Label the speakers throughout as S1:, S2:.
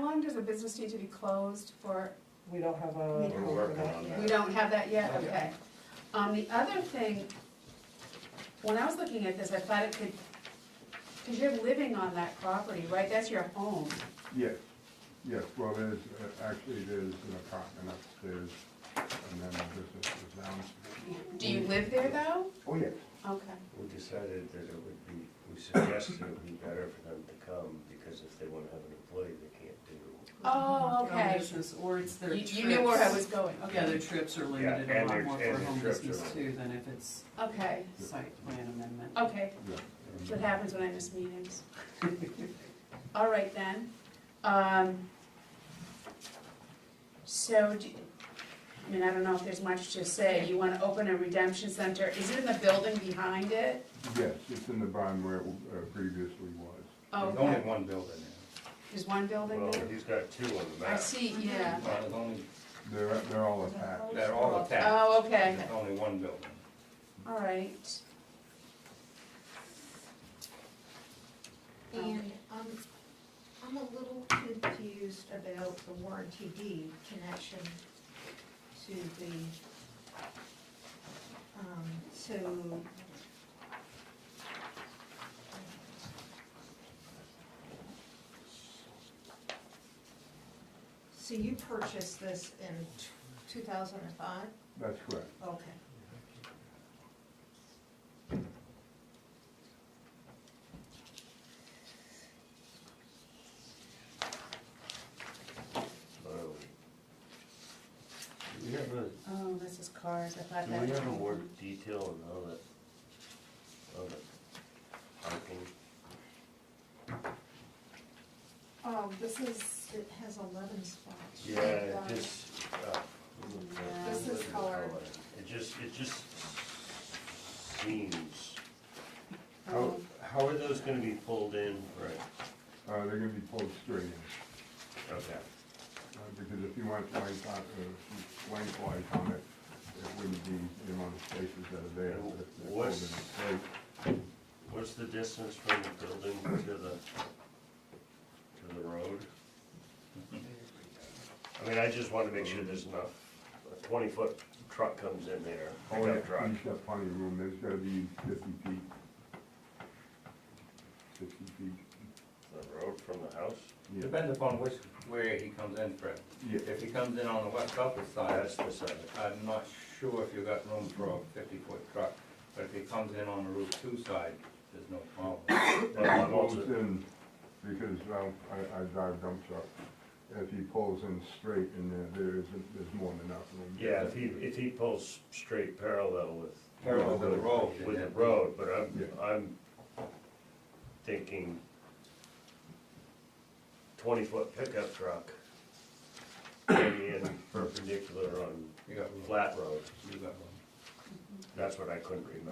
S1: long does a business need to be closed for,
S2: We don't have a.
S1: We don't
S3: We're working on
S1: we
S3: that.
S1: don't have that yet,
S3: Not yet.
S1: okay. Um, the other thing, when I was looking at this, I thought it could, because you're living on that property, right, that's your home.
S4: Yes, yes, well, there's, uh, actually, there's an apartment upstairs, and then this is the downstairs.
S1: Do you live there though?
S4: Oh, yes.
S1: Okay,
S3: We decided that it would be, we suggested it would be better for them to come, because if they wanna have an employee, they can't do.
S1: oh,
S2: Their own
S1: okay.
S2: business, or it's their
S1: You,
S2: trips.
S1: you knew where I was going,
S2: Yeah,
S1: okay,
S2: their trips are
S3: Yeah,
S2: limited a
S3: and
S2: lot
S3: their-
S2: more for
S3: and
S2: a
S3: their
S2: home
S3: trips are
S2: business too
S3: limited.
S2: than if it's
S1: okay,
S2: site plan amendment.
S1: okay.
S4: Yeah.
S1: That's what happens when I miss meetings. All right then. Um, So, do- I mean, I don't know if there's much to say. You want to open a redemption center. Is it in the building behind it?
S4: Yes, it's in the barn where it uh, previously was.
S1: Oh,
S3: There's only
S1: okay.
S3: one building
S1: There's one
S3: now.
S1: building
S3: Well,
S1: there?
S3: he's got two on the
S1: I
S3: map.
S1: see, yeah.
S3: Well, There's only,
S4: They're, they're all attached.
S3: they're all attached.
S1: Oh, okay.
S3: There's only one building.
S1: All right.
S5: And um, I'm a little confused about the warranty deed connection to the, um, so. So you purchased this in two thousand and five?
S4: That's correct.
S5: Okay.
S3: Oh. Do we have a,
S1: Oh, this is cars. I thought
S3: do
S1: that.
S3: we
S1: was
S3: have a word detail on all that, all that parking?
S5: Um, this is, it has eleven spots.
S3: Yeah, it just, uh.
S1: This
S5: is colored.
S3: It just, it just seems, how,
S1: Oh,
S3: how are those gonna be pulled in? Right.
S4: Uh, they're gonna be pulled straight in,
S3: Okay.
S4: uh, because if you went length on, uh, lengthwise on it, it wouldn't be the amount of spaces that are there. but if they're pulled in
S3: What's-
S4: straight,
S3: What's the distance from the building to the, to the road? I mean, I just wanna make sure there's not, a twenty-foot truck comes in there,
S4: Oh, yeah,
S3: pickup truck.
S4: you've got plenty of room, there's gotta be fifty feet. Sixty feet,
S3: The road from the house?
S4: yeah.
S6: Depends upon which, where he comes in from.
S4: Yeah.
S6: If he comes in on the West Coast side,
S3: That's the side.
S6: I'm not sure if you got room for a fifty-foot truck, but if he comes in on the Route Two side, there's no problem.
S3: Well,
S4: He
S3: I'm
S4: pulls
S3: also-
S4: in, because well, I, I drive dump truck, if he pulls in straight in there, there isn't, there's more than enough room.
S3: Yeah, if he, if he pulls straight parallel with
S6: Parallel to the road.
S3: with the road, but I'm,
S4: Yeah.
S3: I'm thinking twenty-foot pickup truck coming in perpendicular on
S6: You got room,
S3: flat road,
S6: you got room.
S3: that's what I couldn't remember.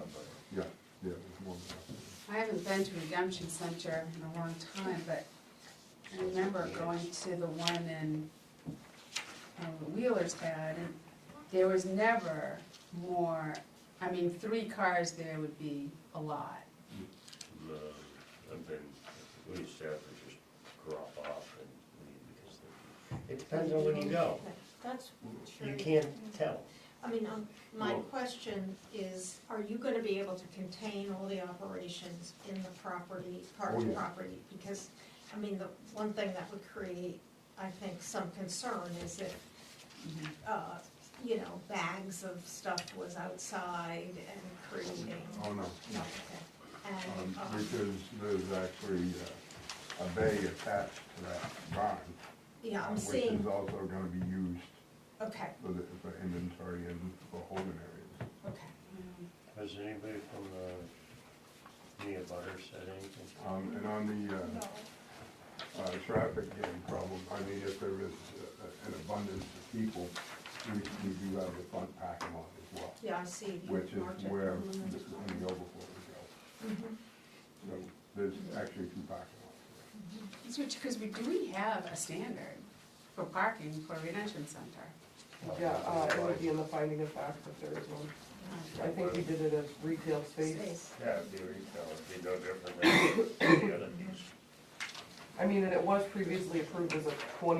S4: Yeah, yeah, there's more than
S1: I haven't been to Redemption Center in a long time, but I remember going to the one in, uh, Wheeler's had, and there was never more, I mean, three cars there would be a lot.
S3: Um, I've been, we used to have to just drop off and leave because the- it depends on when you go.
S5: That's true.
S3: You can't tell.
S5: I mean, um, my
S3: Well-
S5: question is, are you gonna be able to contain all the operations in the property, part
S4: Oh,
S5: of the
S4: yeah.
S5: property? Because, I mean, the one thing that would create, I think, some concern is if,
S4: Mm-hmm.
S5: uh, you know, bags of stuff was outside and creating,
S4: enough. Oh, no.
S5: no, okay.
S4: Um,
S5: And, um,
S4: because there's actually uh, a bay attached to that barn.
S5: yeah,
S4: um,
S5: I'm seeing,
S4: Which is also gonna be used
S5: okay,
S4: for the, for inventory and for holding areas.
S5: okay.
S3: Has anybody from the, any of butters said anything?
S4: Um, and on the, uh,
S5: No.
S4: uh, traffic jam problem. I mean, if there is uh, an abundance of people, we, we do have the front parking lot as well,
S5: Yeah, I see. Mm-hmm. the
S4: which is
S5: margin.
S4: where the, and the overflow would
S5: Mhm.
S4: go. So there's actually two parking lots.
S1: Because we, do we have a standard for parking for Redemption Center?
S2: Yeah, uh, it would be in the finding of fact if there is one. I think we did it as retail space.
S5: Space.
S3: Yeah, it'd be retail, it'd be no different than any other piece.
S2: I mean, and it was previously approved as a twenty